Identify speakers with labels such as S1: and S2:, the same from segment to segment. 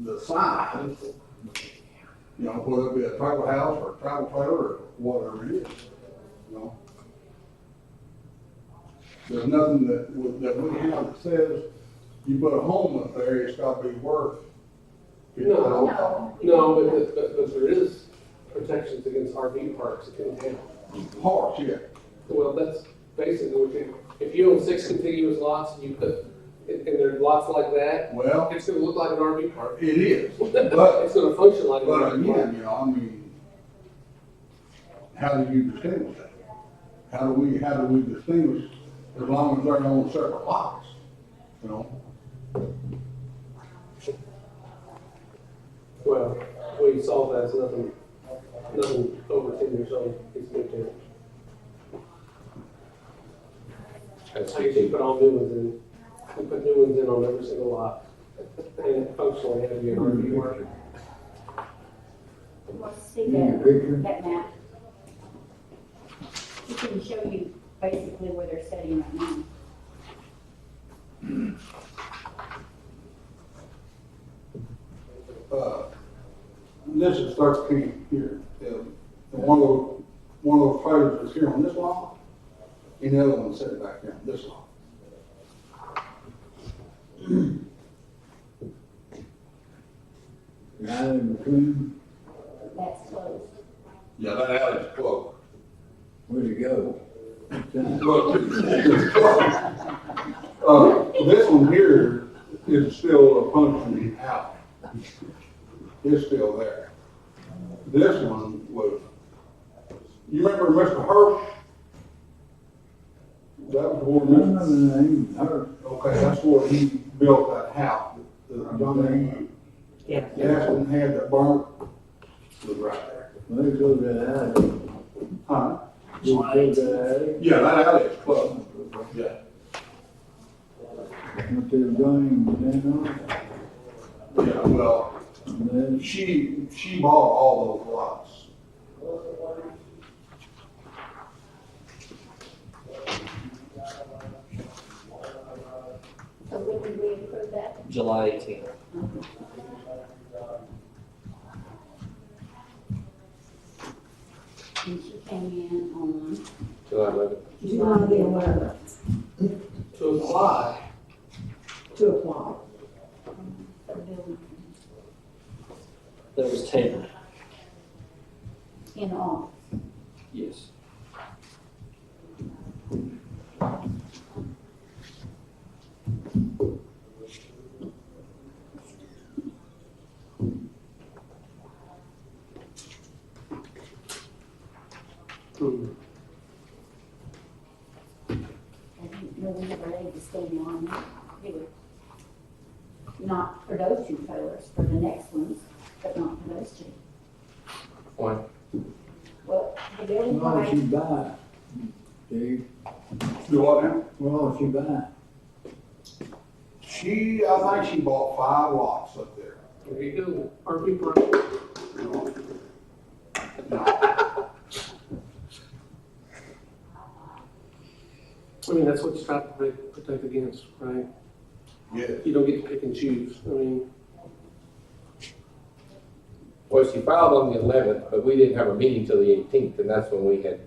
S1: the sign, you know, whether it be a tribal house or a tribal trailer or whatever it is, you know? There's nothing that, would- that we have that says, you put a home up there, it's gotta be worth.
S2: No.
S3: No,
S2: No, but, but, but there is protections against RV parks in town.
S1: Parts, yeah.
S2: Well, that's basically what you, if you own six contiguous lots and you put, and, and there are lots like that,
S1: Well,
S2: it's gonna look like an RV park.
S1: it is, but,
S2: It's gonna function like an
S1: but
S2: RV park.
S1: again, you know, I mean, how do you distinguish that? How do we, how do we distinguish as long as they're on separate lots, you know?
S2: Well, we solved that, it's nothing, nothing over ten years old, it's been there. I guess you put all new ones in, we put new ones in on every single lot, and functionally have you an RV park.
S3: you want to see that, that map? We can show you basically where they're studying right now.
S1: Uh, This is thirteen here, and and one of those, one of those trailers is here on this lot, and the other one's sitting back here on this lot.
S4: Right in between,
S3: That's closed.
S1: Yeah, that alley's closed.
S4: where'd it go?
S1: Uh, this one here is still a functioning alley. It's still there. This one was, you remember Mr. Hurst? That was where
S4: I don't know
S1: Mr.
S4: the name, her,
S1: Okay, that's where he built that house, the John
S5: Yeah.
S1: A. Jackson had that barn, was right there.
S4: where it goes to
S1: Huh?
S4: that, it goes to
S2: uh,
S4: that,
S1: Yeah, that alley is closed. Yeah.
S4: what they were going, you know,
S1: Yeah, well,
S4: and then,
S1: She, she bought all those lots.
S3: So when did we approve that?
S5: July eighteenth.
S3: And she came in on.
S2: July eleventh.
S3: July the eleventh.
S2: To apply,
S6: to apply.
S5: That was tabled.
S3: In all.
S5: Yes.
S2: hmm,
S3: I didn't know we were ready to stand on that. They were Not for those two trailers, for the next ones, but not for those two.
S5: Why?
S3: Well, the building
S4: well,
S3: right,
S4: she buy, Steve,
S1: Do what now?
S4: well, she buy,
S1: She, I think she bought five lots up there.
S2: there you go, RV park. I mean, that's what you try to protect, protect against, right?
S1: Yes.
S2: You don't get to pick and choose, I mean.
S7: Well, she filed on the eleventh, but we didn't have a meeting till the eighteenth, and that's when we had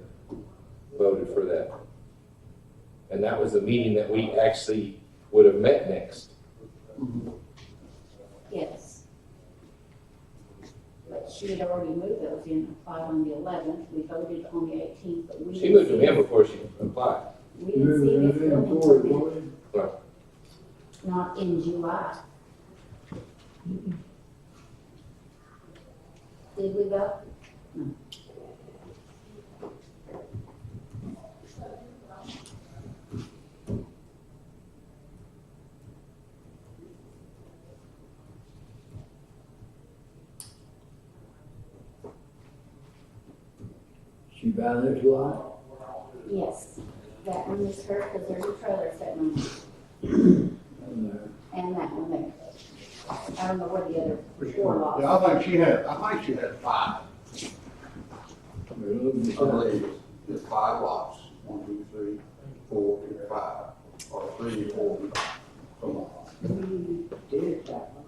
S7: voted for that. And that was the meeting that we actually would have met next.
S3: yes. But she had already moved those in, applied on the eleventh, we voted on the eighteenth, but we.
S7: She
S3: didn't
S7: moved them
S3: see-
S7: in before she applied.
S3: We
S4: you
S3: didn't see
S4: remember
S3: this
S4: that thing
S3: building
S4: before,
S3: permit,
S4: boy?
S3: not in July. Did we go?
S4: she buy this lot,
S3: Yes, that one is hurt because there's a trailer sitting on it,
S4: and, uh,
S3: and that one there. I don't know where the other four lots.
S1: Yeah, I think she had, I think she had five,
S4: we're looking
S1: I believe, it's five lots. One, two, three, four, five, or three, four, five, something like that.
S6: We did that